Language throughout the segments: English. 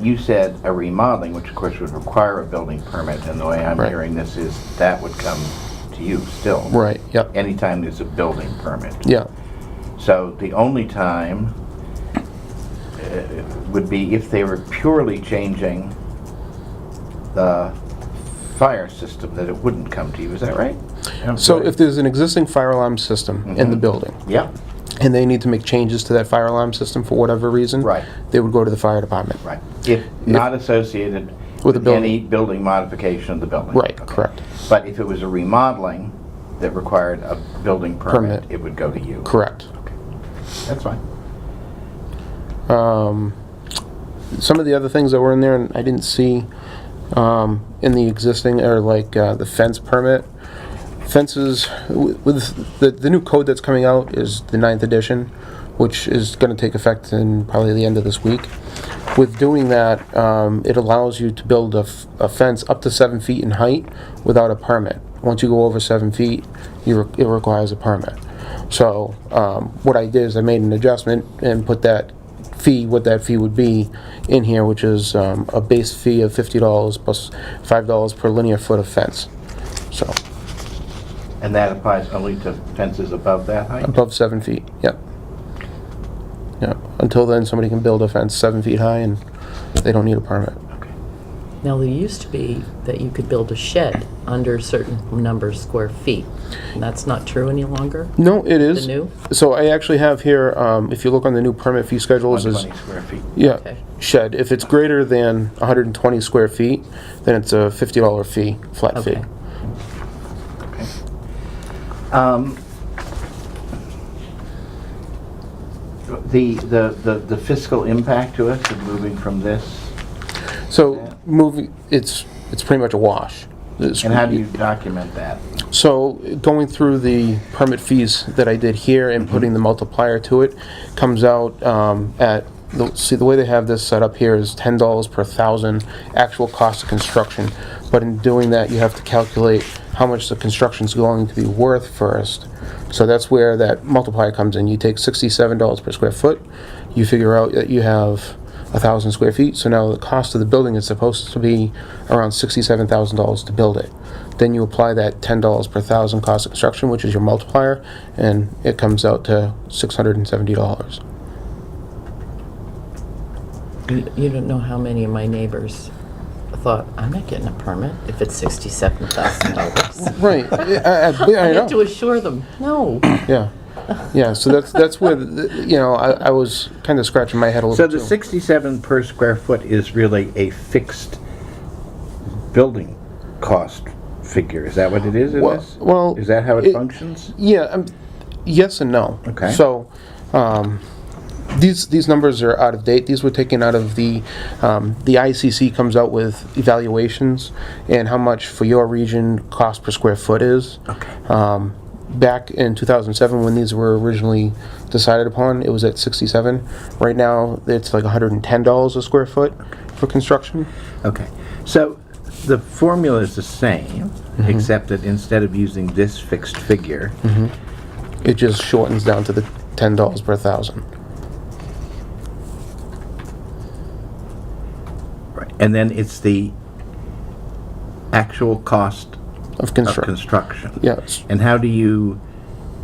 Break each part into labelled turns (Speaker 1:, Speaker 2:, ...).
Speaker 1: you said a remodeling, which of course would require a building permit, and the way I'm
Speaker 2: Right.
Speaker 1: hearing this is that would come to you still.
Speaker 2: Right, yep,
Speaker 1: Anytime there's a building permit.
Speaker 2: yeah,
Speaker 1: So the only time uh, would be if they were purely changing the fire system, that it wouldn't come to you, is that right?
Speaker 2: so if there's an existing fire alarm system in the building,
Speaker 1: Yeah,
Speaker 2: and they need to make changes to that fire alarm system for whatever reason.
Speaker 1: Right.
Speaker 2: They would go to the fire department.
Speaker 1: right. If not associated
Speaker 2: With the
Speaker 1: with
Speaker 2: building.
Speaker 1: any building modification of the building.
Speaker 2: Right,
Speaker 1: Okay.
Speaker 2: correct,
Speaker 1: But if it was a remodeling that required a building permit,
Speaker 2: Permit.
Speaker 1: it would go to you.
Speaker 2: correct.
Speaker 1: That's fine.
Speaker 2: Um, Some of the other things that were in there, and I didn't see um, in the existing, are like uh, the fence permit. Fences, wi- with, the, the new code that's coming out is the ninth edition, which is gonna take effect in probably the end of this week. With doing that, um, it allows you to build a, f- a fence up to seven feet in height without a permit. Once you go over seven feet, you, re- it requires a permit. So, um, what I did is I made an adjustment and put that fee, what that fee would be in here, which is um, a base fee of fifty dollars plus five dollars per linear foot of fence. So,
Speaker 1: And that applies only to fences above that height?
Speaker 2: above seven feet, yep. Yep, until then, somebody can build a fence seven feet high and they don't need a permit.
Speaker 1: Okay.
Speaker 3: Now, there used to be that you could build a shed under a certain number of square feet. And that's not true any longer?
Speaker 2: No, it is.
Speaker 3: The new?
Speaker 2: So I actually have here, um, if you look on the new permit fee schedules, is,
Speaker 1: 120 square feet.
Speaker 2: yeah,
Speaker 3: Okay.
Speaker 2: shed, if it's greater than hundred and twenty square feet, then it's a fifty dollar fee, flat fee.
Speaker 3: Okay.
Speaker 1: Um, The the the the fiscal impact to us of moving from this, Yeah.
Speaker 2: So, moving, it's, it's pretty much a wash. It's-
Speaker 1: and how do you document that?
Speaker 2: So going through the permit fees that I did here and putting the multiplier to it comes out um, at, the- see, the way they have this set up here is ten dollars per thousand actual cost of construction. But in doing that, you have to calculate how much the construction's going to be worth first. So that's where that multiplier comes in. You take sixty-seven dollars per square foot, you figure out that you have a thousand square feet, so now the cost of the building is supposed to be around sixty-seven thousand dollars to build it. Then you apply that ten dollars per thousand cost of construction, which is your multiplier, and it comes out to six hundred and seventy dollars.
Speaker 3: You you don't know how many of my neighbors thought, I'm not getting a permit if it's $67,000.
Speaker 2: Right, I, I- I
Speaker 3: I had to
Speaker 2: know,
Speaker 3: assure them, no.
Speaker 2: yeah, yeah, so that's, that's where, the- you know, I, I was kinda scratching my head a
Speaker 1: So
Speaker 2: little
Speaker 1: the
Speaker 2: too.
Speaker 1: 67 per square foot is really a fixed building cost figure, is that what it is in
Speaker 2: Well-
Speaker 1: this?
Speaker 2: well,
Speaker 1: Is that how it
Speaker 2: it-
Speaker 1: functions?
Speaker 2: Yeah, um, yes and no.
Speaker 1: Okay.
Speaker 2: So, um, these, these numbers are out of date. These were taken out of the, um, the ICC comes out with evaluations and how much for your region cost per square foot is.
Speaker 1: Okay.
Speaker 2: Um, back in 2007, when these were originally decided upon, it was at 67. Right now, it's like $110 a square foot for construction.
Speaker 1: Okay, so the formula is the same, except that instead of using this fixed figure,
Speaker 2: It just shortens down to the $10 per thousand.
Speaker 1: Right. and then it's the actual cost
Speaker 2: Of
Speaker 1: of
Speaker 2: construction.
Speaker 1: construction.
Speaker 2: Yes.
Speaker 1: And how do you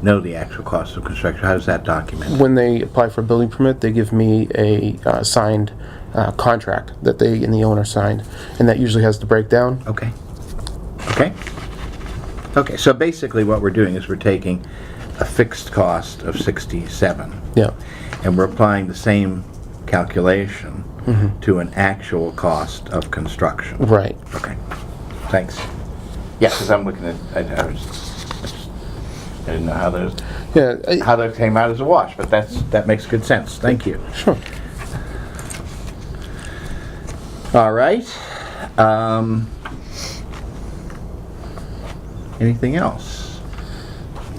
Speaker 1: know the actual cost of construction? How is that documented?
Speaker 2: when they apply for a building permit, they give me a uh, signed uh, contract that they and the owner signed, and that usually has the breakdown.
Speaker 1: Okay. Okay. Okay, so basically what we're doing is we're taking a fixed cost of 67
Speaker 2: Yeah,
Speaker 1: and we're applying the same calculation to an actual cost of construction.
Speaker 2: right.
Speaker 1: Okay, thanks. Yeah, because I'm looking at, I I was, I didn't know how those,
Speaker 2: Yeah, I-
Speaker 1: how that came out as a wash, but that's, that makes good sense. Thank you.
Speaker 2: sure.
Speaker 1: All right. Um, anything else?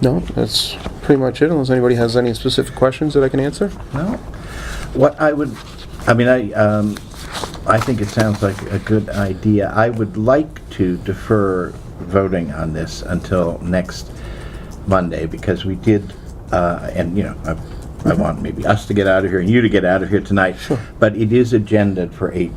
Speaker 2: No, that's pretty much it. Unless anybody has any specific questions that I can answer.
Speaker 1: No. What I would, I mean, I, um, I think it sounds like a good idea. I would like to defer voting on this until next Monday because we did, uh, and you know, I, I want maybe us to get out of here and you to get out of here tonight. But it is agendaed for eight